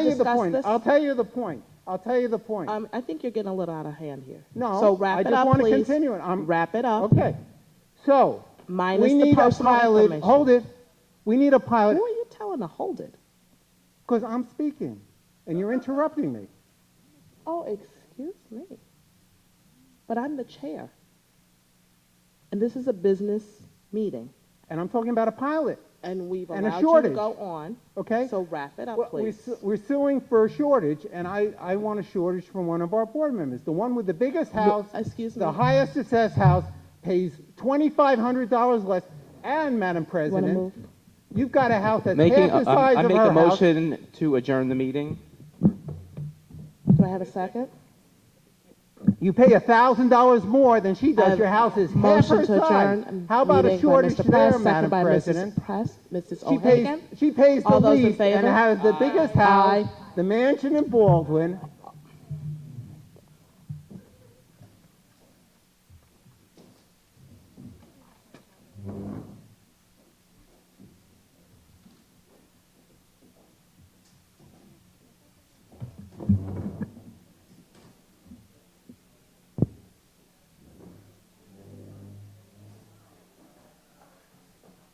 tell you the discuss point. this? I'll tell you the point. I'll tell you the point. Um, I think you're getting a little out of hand here. No, So wrap I it just up, wanna please. continue it. I'm- Wrap it up. Okay, so, um, Minus we the need a personal pilot, information. hold it, we need a pilot, Who are you telling to hold it? because I'm speaking, and you're interrupting me. Oh, excuse me. But I'm the chair. And this is a business meeting. And I'm talking about a pilot, And we've And a allowed you to shortage. go on. okay? So wrap it Well, up, we please. su- We're suing for a shortage, and I, I want a shortage from one of our board members. The one with the biggest house, Excuse me. the highest success house, pays $2,500 less, and, Madam President, move? you've got a house that's half Making, the a- I size I of make her a house. motion to adjourn the meeting. Do I have a second? You pay $1,000 more than she I does, have your house is half Motion her to size. adjourn. How about a meeting by shortage Mr. Press, there, Madam second by Mrs. President? Press, Mrs. She pays, O'Hagan? she pays the All those in least and favor? has the biggest house, Aye. the mansion in Baldwin,